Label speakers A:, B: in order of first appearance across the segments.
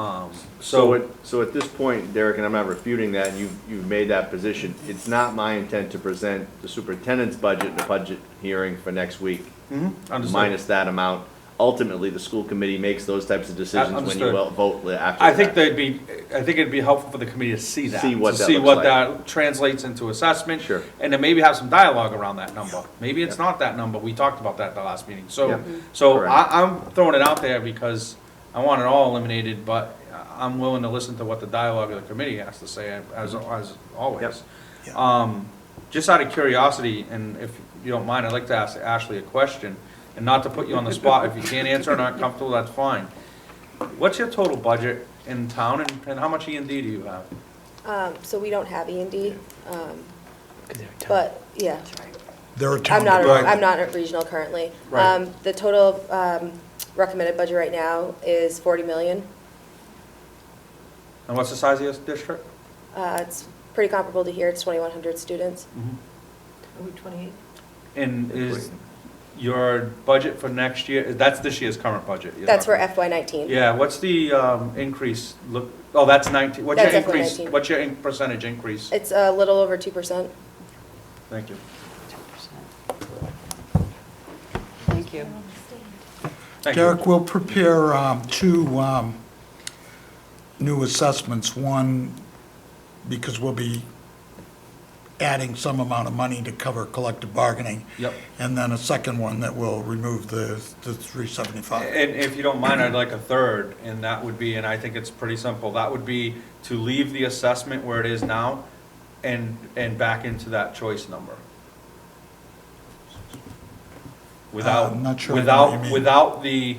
A: Um,
B: So
A: So,
B: at, so at this point, Derek, and I'm not refuting that, and you, you've made that position, it's not my intent to present the superintendent's budget in the budget hearing for next week.
A: Understood.
B: Minus that amount. Ultimately, the school committee makes those types of decisions when you
A: understood.
B: will vote li- after that.
A: I think they'd be, I think it'd be helpful for the committee to see that.
B: See what that
A: To see
B: looks
A: what
B: like.
A: that translates into assessment.
B: Sure.
A: And then maybe have some dialogue around that number. Maybe it's
B: Yeah.
A: not that number, we talked about that at the last meeting.
B: Yeah.
A: So, so
B: Correct.
A: I, I'm throwing it out there because I want it all eliminated, but I'm willing to listen to what the dialogue of the committee has to say, as, as always.
C: Yep.
A: Um, just out of curiosity, and if you don't mind, I'd like to ask Ashley a question, and not to put you on the spot, if you can't answer and aren't comfortable, that's fine. What's your total budget in town, and, and how much E and D do you have?
D: Um, so we don't have E and D, um, but, yeah.
C: They're a town
D: I'm not, a-
C: department.
D: I'm not a regional currently.
A: Right.
D: Um, the total, um, recommended budget right now is forty million.
A: And what's the size of your district?
D: Uh, it's pretty comparable to here, it's twenty-one hundred students.
E: twenty-eight?
A: And is your budget for next year, that's this year's current budget? you're
D: That's for
A: talking about.
D: FY nineteen.
A: Yeah, what's the, um, increase, look, oh, that's nineteen, what's your
D: That's FY
A: increase,
D: 19.
A: what's your in- percentage increase?
D: It's a little over two percent.
A: Thank you.
E: Thank you.
A: Thank you.
C: Derek, we'll prepare um, two um, new assessments. One, because we'll be adding some amount of money to cover collective bargaining.
A: Yep.
C: And then a second one that will remove the the 375.
A: And if you don't mind, I'd like a third, and that would be, and I think it's pretty simple, that would be to leave the assessment where it is now and, and back into that choice number. Without,
C: I'm not sure what you
A: without,
C: mean.
A: without the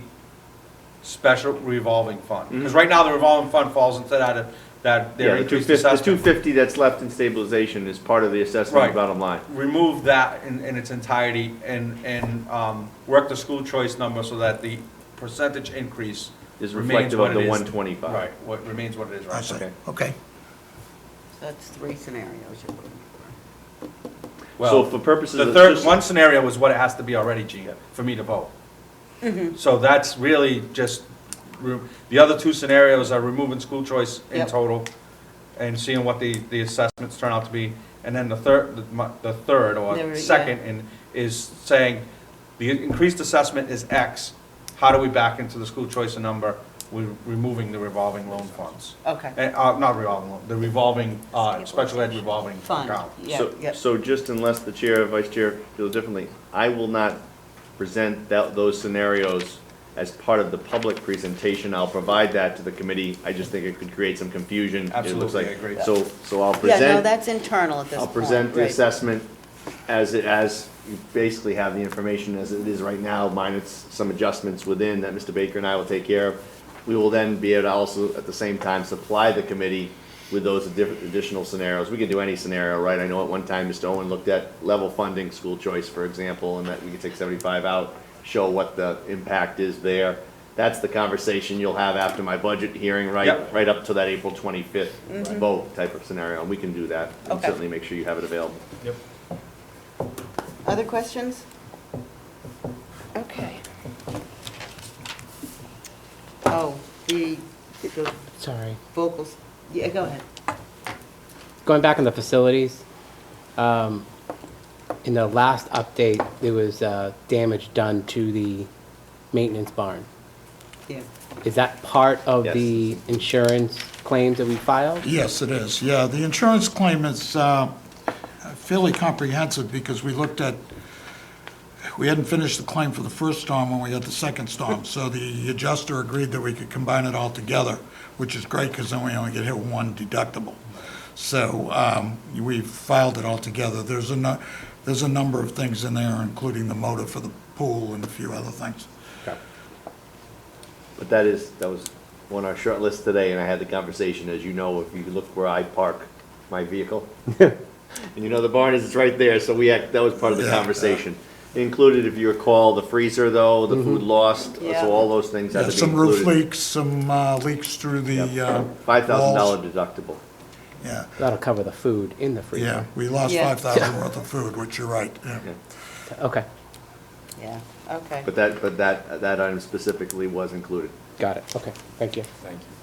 A: special revolving fund. Because right now, the revolving fund falls into that, that
B: Mm-hmm. Yeah,
A: their
B: the two
A: increased
B: fifty, the two
A: assessment.
B: fifty that's left in stabilization is part of the assessment
A: Right.
B: of bottom line.
A: Remove that in, in its entirety and, and, um, work the school choice number so that the percentage increase
B: Is
A: remains
B: reflective
A: what
B: of the
A: it is.
B: one twenty-five.
A: Right, what remains what it is
C: I
A: right
C: see.
B: Okay.
C: Okay.
E: That's three scenarios you're looking for.
B: So
A: Well,
B: for purposes of.
A: the third,
B: just-
A: one scenario was what it has to be already, Gina, for me to vote.
E: Mm-hmm.
A: So that's really just, re- the other two scenarios are removing school choice in
E: Yep.
A: total and seeing what the, the assessments turn out to be. And then the third, the mu- the third
E: There we-
A: or
E: yeah.
A: second and is saying, the increased assessment is X. How do we back into the school choice number? We're removing the revolving loan funds.
E: Okay.
A: Eh, Uh, not revolving loan, the revolving, uh, special ed revolving
E: Fund,
A: account.
E: yeah,
B: So-
E: yeah.
B: So just unless the chair or vice chair feels differently, I will not present that, those scenarios as part of the public presentation. I'll provide that to the committee. I just think it could create some confusion. It looks
A: Absolutely, I
B: like-
A: agree.
B: So, so I'll
E: Yeah, no,
B: present,
E: that's internal at this
B: I'll
E: point.
B: present the
E: right.
B: assessment as it, as you basically have the information as it is right now, minus some adjustments within that Mr. Baker and I will take care of. We will then be able to also, at the same time, supply the committee with those addi- additional scenarios. We could do any scenario, right? I know at one time, Mr. Owen looked at level funding, school choice, for example, and that we could take seventy-five out, show what the impact is there. That's the conversation you'll have after my budget hearing, right?
A: Yep.
B: Right up to that April twenty-fifth
E: Mm-hmm.
B: vote type of scenario, and we can do that. And
E: Okay.
B: certainly make sure you have it available.
A: Yep.
E: Other questions? Okay. Oh, the, the
F: Sorry.
E: vocals, yeah, go ahead.
F: Going back on the facilities, um, in the last update, there was, uh, damage done to the maintenance barn.
E: Yeah,
F: Is that part of
B: Yes.
F: the insurance claims that we filed?
C: Yes, it is, yeah. The insurance claim is uh, fairly comprehensive because we looked at, we hadn't finished the claim for the first storm when we had the second storm. So the adjuster agreed that we could combine it all together, which is great because then we only get hit with one deductible. So um, we filed it all together. There's a, nu- there's a number of things in there, including the motor for the pool and a few other things.
B: But that is, that was on our short list today, and I had the conversation, as you know, if you look where I park my vehicle. And you know, the barn is, it's right there, so we, act- that was part of the
C: Yeah, yeah.
B: conversation. Included, if you recall, the freezer though, the food lost,
E: Yeah.
B: so all those things had to
C: Mm-hmm. Yeah,
B: be included.
C: Some roof leaks, some uh, leaks through the uh, walls.
B: Five thousand dollar deductible.
C: Yeah.
F: That'll cover the food in the
C: Yeah,
F: freezer.
C: we lost
E: Yeah.
C: five thousand worth of food, which you're right, yeah.
F: Okay,
E: yeah, okay.
B: But that, but that, that item specifically was included.
F: got it. Okay, thank you.
A: Thank you.